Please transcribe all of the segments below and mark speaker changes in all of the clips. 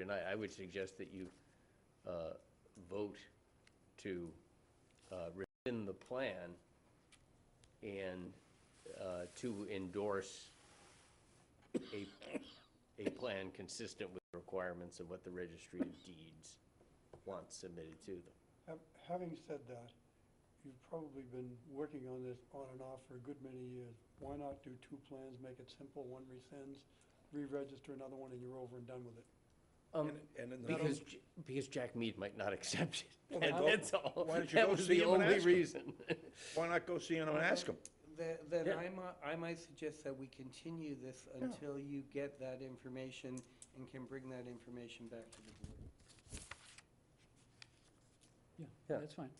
Speaker 1: tonight, I would suggest that you uh, vote to uh, rescind the plan and uh, to endorse a, a plan consistent with the requirements of what the registry of deeds wants submitted to them.
Speaker 2: Hav- Having said that, you've probably been working on this on and off for a good many years. Why not do two plans, make it simple, one rescinds, re-register another one, and you're over and done with it?
Speaker 1: Um,
Speaker 3: And- and in the-
Speaker 1: Because, J- because Jack Mead might not accept
Speaker 3: Well,
Speaker 1: it.
Speaker 3: then go-
Speaker 1: That's all.
Speaker 3: why don't you
Speaker 1: That
Speaker 3: go
Speaker 1: was
Speaker 3: see
Speaker 1: the
Speaker 3: him and
Speaker 1: only
Speaker 3: ask him?
Speaker 1: reason.
Speaker 3: Why not go see him and ask him?
Speaker 4: Then, then
Speaker 1: Yeah.
Speaker 4: I might, I might suggest that we continue this until you get that information and can bring that information back to the
Speaker 5: Yeah,
Speaker 1: Yeah.
Speaker 5: that's fine.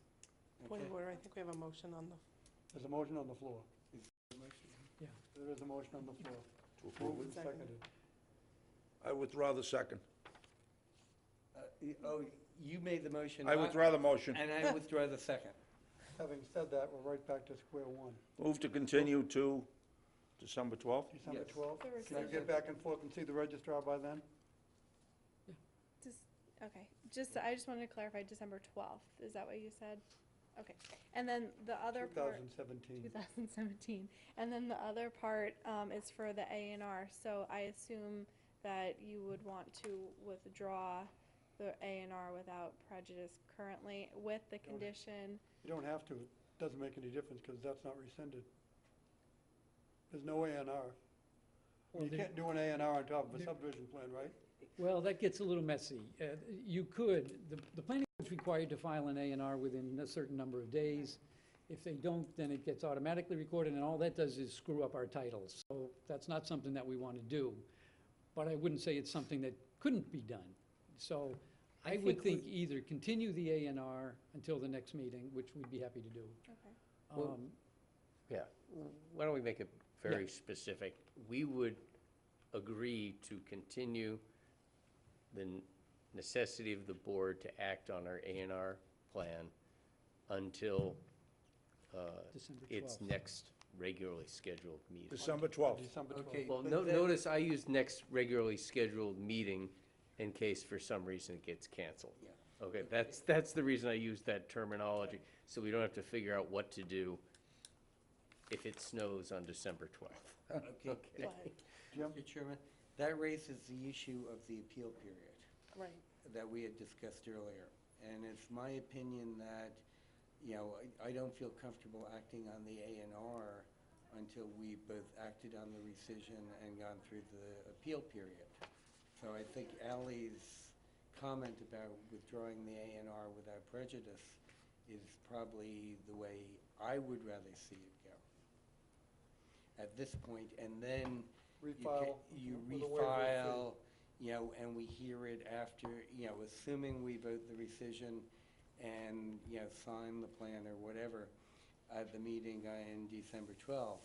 Speaker 4: board.
Speaker 6: Point
Speaker 4: Okay?
Speaker 6: of order, I think we have a motion on the,
Speaker 2: There's a motion on the floor.
Speaker 5: Yeah.
Speaker 2: There is a motion on the floor.
Speaker 3: To
Speaker 2: Moved and
Speaker 6: Second.
Speaker 2: seconded.
Speaker 3: I withdraw the second.
Speaker 4: Uh, y- Oh, you made the motion.
Speaker 3: I withdraw the motion.
Speaker 4: And I withdraw the second.
Speaker 2: Having said that, we're right back to square one.
Speaker 3: Move to continue to December 12th?
Speaker 2: December
Speaker 4: Yes.
Speaker 2: 12th?
Speaker 6: The
Speaker 2: Can you
Speaker 6: rescission.
Speaker 2: get back and forth and see the registrar by then?
Speaker 7: Okay, just, I just wanted to clarify, December twelfth, is that what you said? Okay, and then the other part,
Speaker 2: 2017.
Speaker 7: two thousand seventeen, and then the other part, um, is for the A and R, so I assume that you would want to withdraw the A and R without prejudice currently, with the
Speaker 2: Don't-
Speaker 7: condition,
Speaker 2: You don't have to, it doesn't make any difference, because that's not rescinded. There's no A and R.
Speaker 5: Well,
Speaker 2: You
Speaker 5: there-
Speaker 2: can't do an A and R on top of a
Speaker 5: there-
Speaker 2: subdivision plan, right?
Speaker 5: Well, that gets a little messy. Uh, You could, the, the planning board's required to file an A and R within a certain number of days. If they don't, then it gets automatically recorded, and all that does is screw up our titles. So that's not something that we want to do. But I wouldn't say it's something that couldn't be done. So I would think either continue the A and R until the next meeting, which we'd be happy to do.
Speaker 7: okay,
Speaker 1: Well-
Speaker 5: Um,
Speaker 1: Yeah, why don't we make it very specific? We would agree to continue the necessity of the board to act on our A and R plan until uh,
Speaker 5: December
Speaker 1: its
Speaker 5: 12th.
Speaker 1: next regularly scheduled meeting.
Speaker 3: December 12th.
Speaker 2: December
Speaker 4: Okay.
Speaker 2: 12th.
Speaker 1: Well,
Speaker 4: but
Speaker 1: no-
Speaker 4: then-
Speaker 1: notice I used next regularly scheduled meeting in case for some reason it gets canceled.
Speaker 4: Yeah.
Speaker 1: Okay, that's, that's the reason I used that terminology, so we don't have to figure out what to do if it snows on December 12th.
Speaker 4: Okay.
Speaker 7: but,
Speaker 2: Jim?
Speaker 4: Mr. Chairman, that raises the issue of the appeal period.
Speaker 6: right.
Speaker 4: that we had discussed earlier. And it's my opinion that, you know, I, I don't feel comfortable acting on the A and R until we both acted on the rescission and gone through the appeal period. So I think Ally's comment about withdrawing the A and R without prejudice is probably the way I would rather see it go at this point, and then you ca-
Speaker 2: Refile
Speaker 4: You
Speaker 2: with a waiver of fee.
Speaker 4: refile, you know, and we hear it after, you know, assuming we vote the rescission and, you know, sign the plan or whatever at the meeting on December twelfth,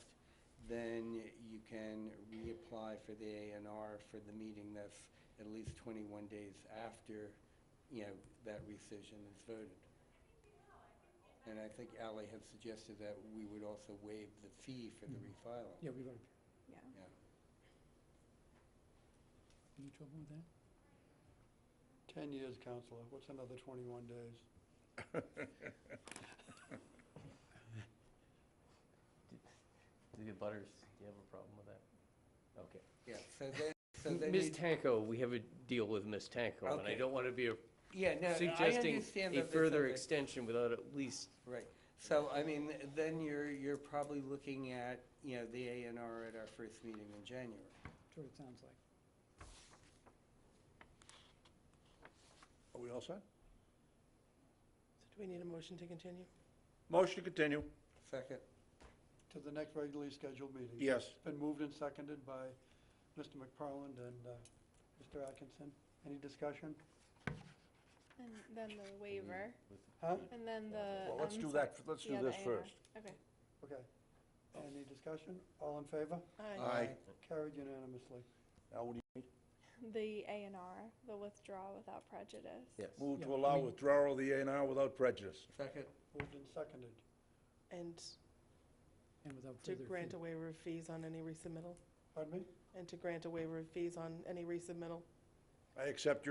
Speaker 4: then you can reapply for the A and R for the meeting that's at least twenty-one days after, you know, that rescission is voted. And I think Ally had suggested that we would also waive the fee for the refiling.
Speaker 5: Yeah, we've already,
Speaker 7: yeah.
Speaker 5: any trouble with that?
Speaker 2: 10 years, Counselor. What's another 21 days?
Speaker 1: Do the butters, do you have a problem with that? Okay.
Speaker 4: Yeah, so then, so then
Speaker 1: Ms.
Speaker 4: you,
Speaker 1: Tanko, we have a deal with Ms. Tanko, and I
Speaker 4: Okay.
Speaker 1: don't want to be
Speaker 4: yeah, no, I
Speaker 1: suggesting
Speaker 4: understand
Speaker 1: a
Speaker 4: that there's
Speaker 1: further
Speaker 4: something-
Speaker 1: extension without at least,
Speaker 4: Right, so, I mean, then you're, you're probably looking at, you know, the A and R at our first meeting in January.
Speaker 5: That's what it sounds like.
Speaker 3: Are we all set?
Speaker 6: So do we need a motion to continue?
Speaker 3: Motion to continue,
Speaker 4: Second,
Speaker 2: To the next regularly scheduled meeting?
Speaker 3: yes.
Speaker 7: Uh,
Speaker 2: It's been moved and seconded by Mr. McFarland and uh, Mr. Atkinson. Any discussion?
Speaker 7: And then the waiver,
Speaker 2: Huh?
Speaker 7: and then the.
Speaker 3: Well, let's
Speaker 7: um,
Speaker 3: do
Speaker 7: so-
Speaker 3: that, f- let's do
Speaker 7: yeah, the
Speaker 3: this
Speaker 7: A&R.
Speaker 3: first.
Speaker 7: Okay.
Speaker 2: Okay. Any discussion? All in favor?
Speaker 6: Aye.
Speaker 3: Aye.
Speaker 2: Carried unanimously.
Speaker 3: Now, what do you,
Speaker 7: The A and R, the withdrawal without prejudice.
Speaker 1: yes.
Speaker 3: move to
Speaker 5: Yeah, I
Speaker 3: allow
Speaker 5: mean-
Speaker 3: withdrawal of the A and R without prejudice.
Speaker 4: second,
Speaker 2: Moved and seconded.
Speaker 6: And
Speaker 5: And without
Speaker 6: to
Speaker 5: further.
Speaker 6: grant
Speaker 5: fee.
Speaker 6: a waiver of fees on any resubmittal?
Speaker 2: Pardon me?
Speaker 6: And to grant a waiver of fees on any resubmittal?
Speaker 3: I accept your